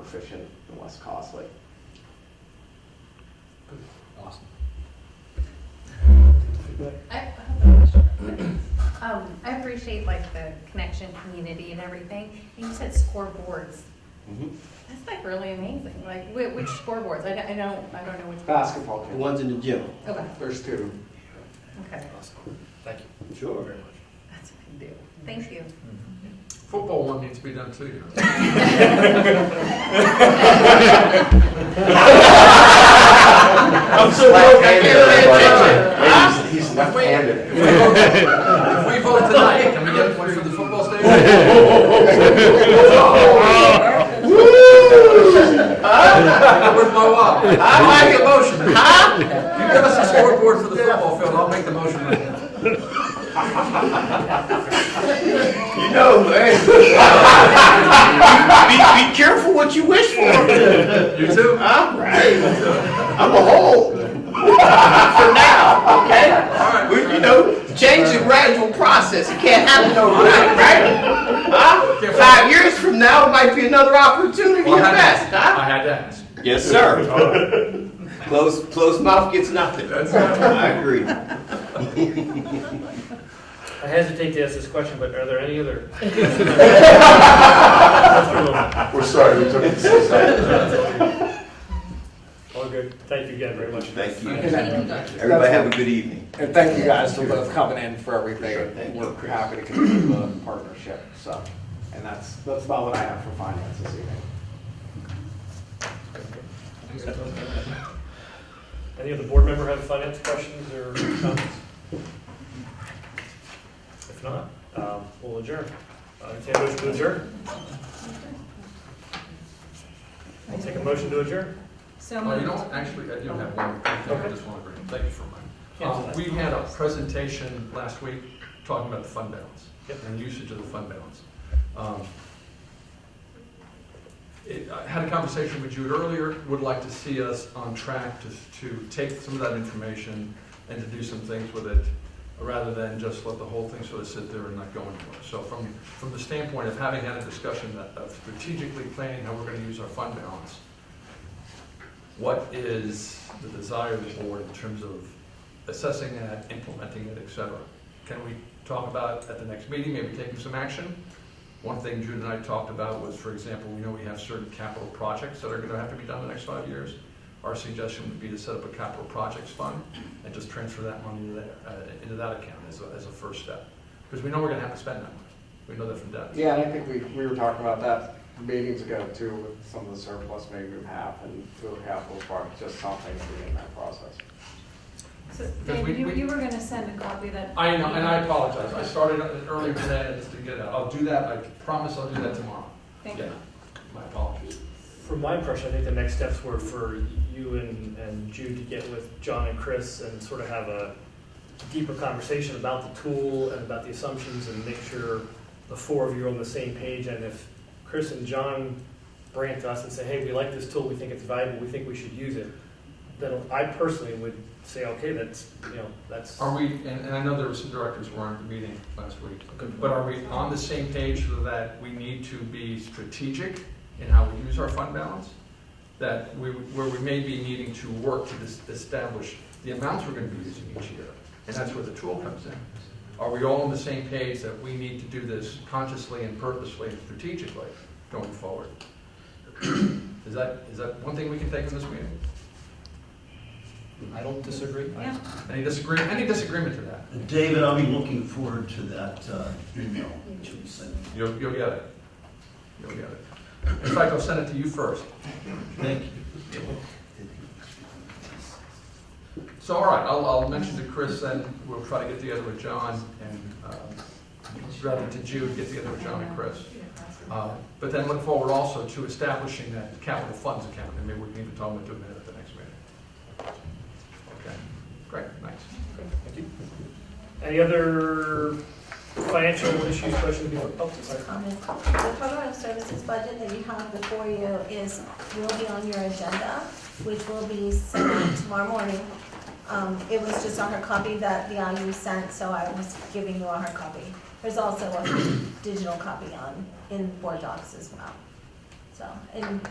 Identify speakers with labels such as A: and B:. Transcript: A: efficient and less costly.
B: Awesome.
C: I have a question. Um, I appreciate like the connection, community and everything. And You said scoreboards.
D: Mm-hmm.
C: That's like really amazing. Like whi- which scoreboards? I don't, I don't, I don't know which.
A: Basketball
D: The
A: court,
D: ones in the gym.
C: Okay,
A: there's two.
C: okay.
B: Awesome. Thank you.
D: Sure.
C: That's a big deal. Thank you.
E: Football one needs to be done too, you know.
B: I'm
A: so broke, I can't pay
B: attention.
A: He's left-handed.
E: If we vote tonight, can we get one for the football stadium? Where's my wallet? I'll make a motion. You give us a scoreboard for the football field, I'll make the motion right now.
D: You know, man. Be, be careful what you wish for.
E: You too?
D: I'm right. I'm a hole. For now, okay?
E: All right.
D: We, you know, change is a gradual process. It can't happen overnight, right? Huh? Five years from now, it might be another opportunity
E: Well, I
D: at
E: had
D: best,
E: to-
D: huh?
E: I had to ask.
D: Yes, sir. Closed, closed mouth gets nothing. I agree.
F: I hesitate to ask this question, but are there any other?
G: We're sorry, we took it so
F: All good. Thank you again very much.
D: Thank you.
C: Thank you.
D: Everybody have a good evening.
B: And thank you guys for both coming in for everything.
A: Thank you. We're happy to continue the partnership, so, and that's, that's about what I have for finance this evening.
F: Any other board member have finance questions or comments? If not, um, we'll adjourn. Uh, entertain a motion to adjourn? I'll take a motion to adjourn.
C: So
E: Oh, you don't, actually, I do have one, thing I just want to bring, thank you for mine.
F: Yeah.
E: Um, We had a presentation last week talking about the fund balance
F: Yep.
E: and usage of the fund balance. Um, it- I had a conversation with Jude earlier, would like to see us on track to, to take some of that information and to do some things with it, rather than just let the whole thing sort of sit there and not go anywhere. So from, from the standpoint of having had a discussion that- of strategically planning how we're gonna use our fund balance, what is the desire of the board in terms of assessing that, implementing it, et cetera? Can we talk about at the next meeting, maybe taking some action? One thing Jude and I talked about was, for example, we know we have certain capital projects that are gonna have to be done in the next five years. Our suggestion would be to set up a capital projects fund and just transfer that money into there, uh, into that account as a, as a first step. Because we know we're gonna have to spend that money. We know that from debt.
A: Yeah, and I think we, we were talking about that meetings ago too, with some of the surplus maybe we have and through a capital part, just something to be in that process.
H: So,
E: Because we-
H: Dave, you,
E: we-
H: you were gonna send a copy of that.
E: I know, and I apologize. I started on it earlier today and just didn't get it out. I'll do that. I promise I'll do that tomorrow.
H: Thank
E: Yeah,
H: you.
E: My apologies.
F: From my impression, I think the next steps were for you and, and Jude to get with John and Chris and sort of have a deeper conversation about the tool and about the assumptions and make sure the four of you are on the same page. And if Chris and John brand to us and say, hey, we like this tool, we think it's valuable, we think we should use it, then I personally would say, okay, that's, you know, that's.
E: Are we, and, and I know there were some directors who weren't at the meeting last week, but are we on the same page so that we need to be strategic in how we use our fund balance? That we, where we may be needing to work to dis- establish the amounts we're gonna be using each year, and that's where the tool comes in. Are we all on the same page that we need to do this consciously and purposely and strategically going forward? Is that, is that one thing we can take from this meeting?
B: I don't disagree.
H: Yeah.
E: Any disagreement, any disagreement to that?
I: David, I'll be looking forward to that uh, email that you sent.
E: You'll, you'll get it. You'll get it. In fact, I'll send it to you first.
I: Thank you.
E: So, all right, I'll, I'll mention to Chris, and we'll try to get together with John and, um, rather to Jude, get together with John and Chris. Uh, But then look forward also to establishing that capital funds account, and maybe we need to talk about doing that at the next meeting. Okay, great, thanks.
F: Thank you. Any other financial issues, questions before? oh, sorry.
J: comment. The program services budget that you have before you is, will be on your agenda, which will be sent out tomorrow morning. Um, it was just on her copy that the IU sent, so I was giving you a hard copy. There's also a digital copy on, in Board Docs as well. So, and